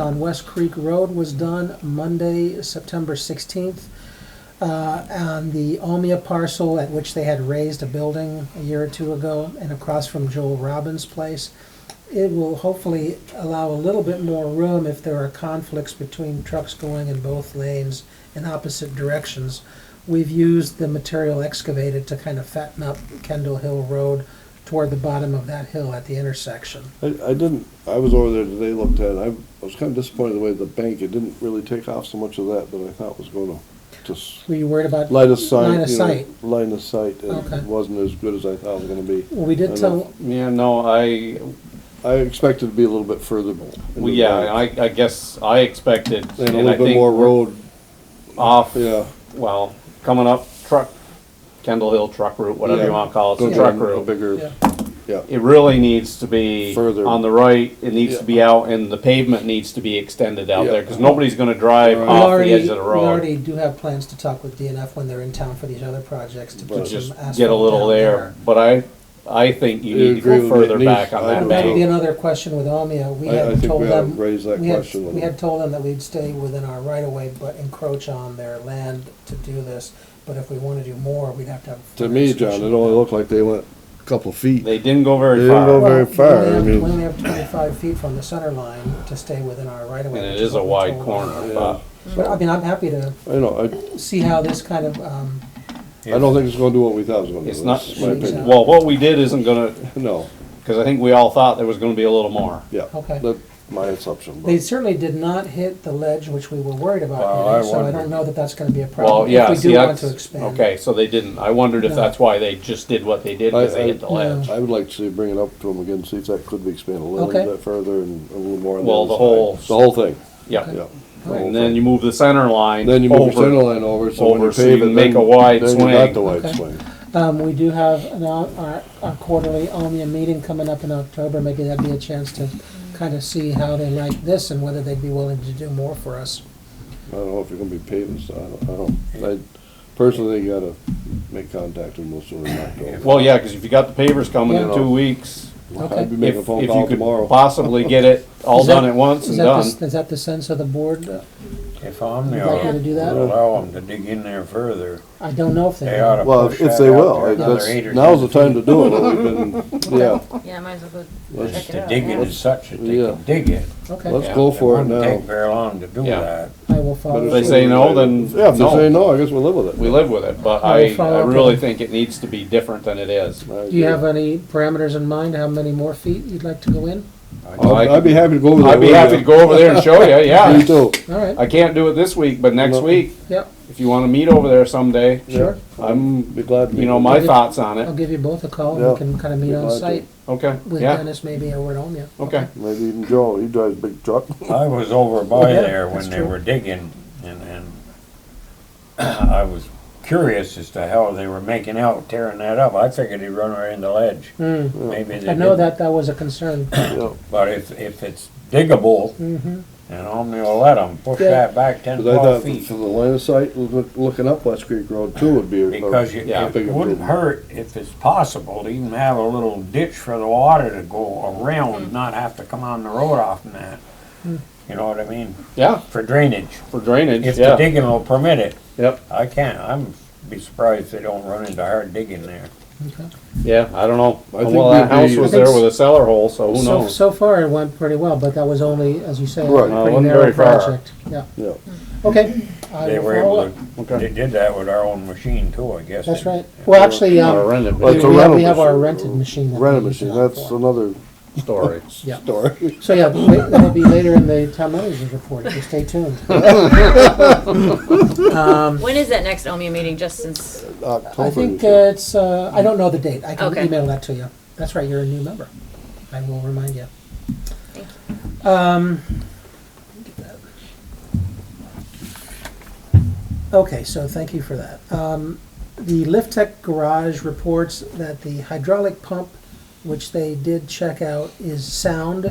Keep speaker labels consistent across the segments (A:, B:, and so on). A: on West Creek Road was done Monday, September 16th, uh, on the Almia parcel at which they had raised a building a year or two ago and across from Joel Robbins' place. It will hopefully allow a little bit more room if there are conflicts between trucks going in both lanes in opposite directions. We've used the material excavated to kind of fatten up Kendall Hill Road toward the bottom of that hill at the intersection.
B: I, I didn't, I was over there today, looked at it, I was kinda disappointed the way the bank, it didn't really take off so much of that that I thought was gonna just
A: Were you worried about?
B: line of sight.
A: Line of
B: you know,
A: sight.
B: Line of sight,
A: Okay.
B: it wasn't as good as I thought it was gonna be.
A: Well, we did
B: And
A: tell,
C: Yeah, no, I,
B: I expected to be a little bit further. into
C: well,
B: the
C: yeah, I,
B: bank.
C: I guess I expected.
B: And a
C: I
B: little bit
C: think
B: more
C: we're
B: road,
C: Off,
B: yeah.
C: well, coming up truck, Kendall Hill truck route, whatever you
B: yeah,
C: wanna call it,
B: go
C: the truck
B: down a
C: route.
B: Bigger,
A: yeah,
B: yeah,
C: It really needs to be
B: Further.
C: on the right, it needs to
B: Yeah.
C: be out and the pavement needs to be extended out
B: Yeah.
C: there, cause nobody's gonna drive
B: Right.
A: we
C: off the
A: already,
C: edge
A: we
C: of the road.
A: already do have plans to talk with DNF when they're in town for these other projects to
B: But
A: put
C: Just
A: some asphalt
C: get a little
A: down
C: there, but I, I think you
B: I
C: need to
B: agree
C: go
B: with you. It
C: further
B: needs-
C: back on
B: I
C: that
B: do
A: That would be
C: bank.
A: another question with Omia. We
B: I, I
A: had
B: think
A: told
B: we ought to
A: them,
B: raise that
A: we had,
B: question with
A: we
B: them.
A: had told them that we'd stay within our right of way, but encroach on their land to do this. But if we wanna do more, we'd have to have.
B: To me, John, it only looked like they went a couple feet.
C: They didn't go
B: They
C: very
B: didn't go
C: far
B: very
A: Well, we
B: far,
A: only
B: I
A: have-
B: mean-
A: We only have twenty-five feet from the center line to stay within our right of
C: and
A: way.
C: it
A: which
C: is a
A: what we
C: wide
A: told them.
C: corner,
B: Yeah.
C: but.
A: But I mean, I'm happy to
B: I know, I,
A: see how this kind of, um,
B: I don't think it's gonna do what we thought it was gonna do.
C: It's not,
B: That's my opinion.
C: well, what we did isn't gonna,
B: No,
C: because I think we all thought there was gonna be a little more.
B: yeah,
A: Okay.
B: that's my assumption. but-
A: They certainly did not hit the ledge, which we were worried
C: Well,
A: about, hitting,
C: I
A: so I
C: wondered.
A: don't know that that's gonna be a problem.
C: Well, yeah,
A: If we
C: see,
A: do want
C: that's,
A: to expand.
C: okay, so they didn't, I wondered if
A: No.
C: that's why they just did what they did, because
B: I- I-
C: they hit the ledge.
B: I would like to see, bring it up to them again, see if that could be expanded a little
A: Okay.
B: bit further and a little more. on
C: Well,
B: other
C: the
B: side.
C: whole-
B: The whole thing,
C: Yeah,
B: yeah. The whole
C: and then
B: thing.
C: you move the center line
B: Then you move the center
C: over.
B: line over, so when you
C: over, so
B: pave
C: you
B: it,
C: make
B: then,
C: a wide
B: then you got
C: swing.
B: the wide
A: Okay.
B: swing.
A: Um, we do have an, o- our, our quarterly Omnia meeting coming up in October, maybe that'd be a chance to kind of see how they like this and whether they'd be willing to do more for us.
B: I don't know if you're gonna be paving, so I don't, I don't, I personally gotta make contact with them, most of them not
C: Well, yeah, because if you got the pavers coming in
B: Yeah.
C: two weeks,
B: going.
A: okay.
B: I'd be
C: if,
B: making a
C: if
B: phone
C: you
B: call
C: could
B: tomorrow.
C: possibly get it all
A: Is that-
C: done at once
A: Is
C: and
A: that the s-
C: done.
A: Is that the sense of the board?
D: If I'm
A: Would like you to do that?
D: allow them to dig in there further,
A: I don't know if they
D: they
A: are.
D: ought to
B: Well, if-
D: push
B: if
D: that
B: they
D: out
B: will,
D: there
B: I-
D: another
B: that's,
D: eight or
B: now's the
D: ten
B: time to do it, we've been, yeah,
E: Yeah, might as well go
B: Let's
E: check
D: feet.
E: it
D: To
E: out.
D: dig it
E: yeah.
D: as such that they
B: Yeah.
D: can dig it.
A: Okay,
B: let's
C: Yeah.
B: go
D: It
B: for it
D: wouldn't
B: now.
D: Take very long to do
C: Yeah.
D: that.
A: I will follow.
C: If they
A: suit.
C: say no, then
B: Yeah, if they
C: no.
B: say no, I guess we'll live with it.
C: We live with it, but
A: I will
C: I,
A: follow
C: I
A: up with
C: really
A: them.
C: think it needs to be different than it is.
A: Do
B: I
A: you
B: agree.
A: have any parameters in mind, how many more feet you'd like to go in?
B: I'd I'd be happy to go over there.
C: I'd be
B: with
C: happy
B: you.
C: to go over there and show you,
B: Me
C: yeah.
B: too.
A: All right,
C: I can't do it this week, but next
B: No.
C: week,
A: yep,
C: if you wanna meet over there someday,
A: sure.
C: I'm,
B: Be glad. to
C: you
B: meet
C: know,
B: you.
C: my thoughts on
A: I'll
C: it.
A: give you both a call,
B: Yeah.
A: we can kind of meet
B: We'd
A: on
B: like to.
A: site
C: Okay,
A: with
C: yeah,
A: Dennis maybe over at Omnia.
C: okay.
B: Maybe even Joe, he drives a big truck.
D: I was over by
A: Oh, Yeah,
D: there
A: that's
D: when they
A: true.
D: were digging and, and I was curious as to how they were making out tearing that up. I figured he'd run right into the ledge.
A: Hmm.
D: Maybe they
A: I know
D: didn't.
A: that that was a concern.
B: Yeah.
D: But if, if it's diggable
A: Mhm.
D: and Omni will let them push
A: Yeah.
D: that back ten,
B: Cause I thought
D: twelve
B: from
D: feet.
B: the line of sight, loo- looking up West Creek Road too would be. a-
D: Because you-
C: Yeah.
D: it wouldn't hurt if it's possible to even have a little ditch for the water to go around, not have to come on the road off and that. You know what I mean?
C: Yeah,
D: For drainage,
C: for drainage,
D: if the
C: yeah,
D: digging will permit it.
C: yep,
D: I can't, I'm be surprised if they don't run into hard digging there.
A: Okay.
C: yeah, I don't know.
B: I think
C: Well, that
B: we'd be-
C: house was
A: I think s-
C: there with a cellar hole, so who
A: So,
C: knows?
A: so far it went pretty well, but that was only, as you say, a
B: Right.
C: No, it
A: pretty
C: wasn't
A: narrow
C: very far.
A: project. Yeah,
B: Yeah,
A: okay. I
D: They
A: will
D: were
A: follow
D: able
A: up.
D: to,
C: Okay.
D: they did that with our own machine too, I guess.
A: That's right. Well, actually,
C: Not a
A: um,
C: rented
A: we
B: Well, it's a
A: we have, we
B: rental
A: have our
B: machine.
A: rented machine. that we
B: rent a
A: use
B: machine,
A: it
B: that's
A: for.
B: another
C: story.
A: Yeah.
B: story.
A: So, yeah, wait, that'll be later in the town manager's report, so stay tuned. Um,
E: When is that next OMIA meeting, just since,
B: October.
A: I
B: you
A: think
B: said.
A: uh, it's, uh, I don't know the date, I can
E: Okay.
A: email that to you. That's right, you're a new member. I will remind you.
E: Thank
A: Um, Okay, so thank you for that. Um, The Lift Tech Garage reports that the hydraulic pump, which they did check out, is sound,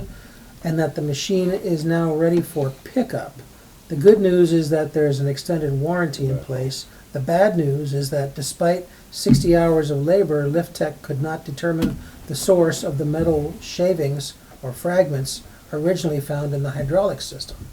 A: and that the machine is now ready for pickup. The good news is that there's an extended warranty in place. The bad news is that despite 60 hours of labor, Lift Tech could not determine the source of the metal shavings or fragments originally found in the hydraulic system.